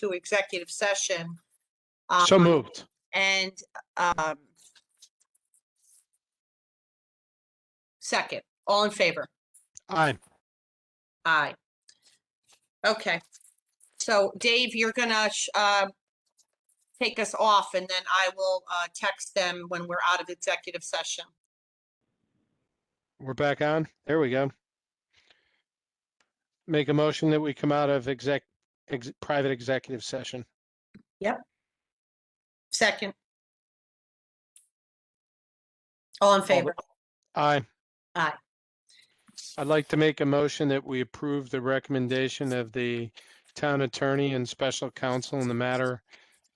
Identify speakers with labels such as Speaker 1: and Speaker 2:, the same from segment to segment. Speaker 1: to executive session.
Speaker 2: So
Speaker 1: um,
Speaker 2: moved.
Speaker 1: And, um, second, all in favor?
Speaker 2: Aye.
Speaker 1: Aye. Okay. So Dave, you're gonna, sh- uh, take us off and then I will, uh, text them when we're out of executive session.
Speaker 2: We're back on. There we go. Make a motion that we come out of exec, ex- private executive session.
Speaker 1: Second. All in favor?
Speaker 2: Aye.
Speaker 1: Aye.
Speaker 2: I'd like to make a motion that we approve the recommendation of the town attorney and special counsel in the matter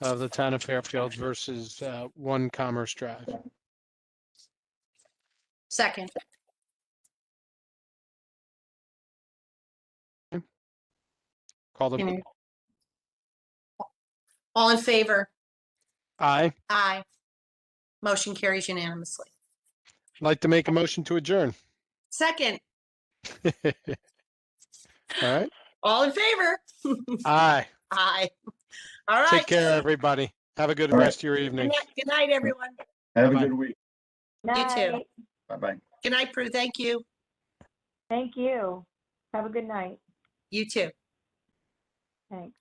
Speaker 2: of the town of Fairfield versus uh, One Commerce Drive.
Speaker 1: Second.
Speaker 2: Call the,
Speaker 1: Okay. All in favor?
Speaker 2: aye.
Speaker 1: Aye. Motion carries unanimously.
Speaker 2: I'd Like to make a motion to adjourn.
Speaker 1: Second,
Speaker 2: All right.
Speaker 1: all in favor?
Speaker 2: Aye.
Speaker 1: Aye. All right.
Speaker 2: Take care, everybody. Have a good
Speaker 3: All right.
Speaker 2: rest of your
Speaker 1: Good
Speaker 2: evening.
Speaker 1: night- good night, everyone.
Speaker 3: Have a
Speaker 2: Bye-bye.
Speaker 3: good week.
Speaker 1: You too.
Speaker 4: Night.
Speaker 3: Bye-bye.
Speaker 1: Good night, Prue. Thank you.
Speaker 4: Thank you. Have a good night.
Speaker 1: You too.
Speaker 4: Thanks.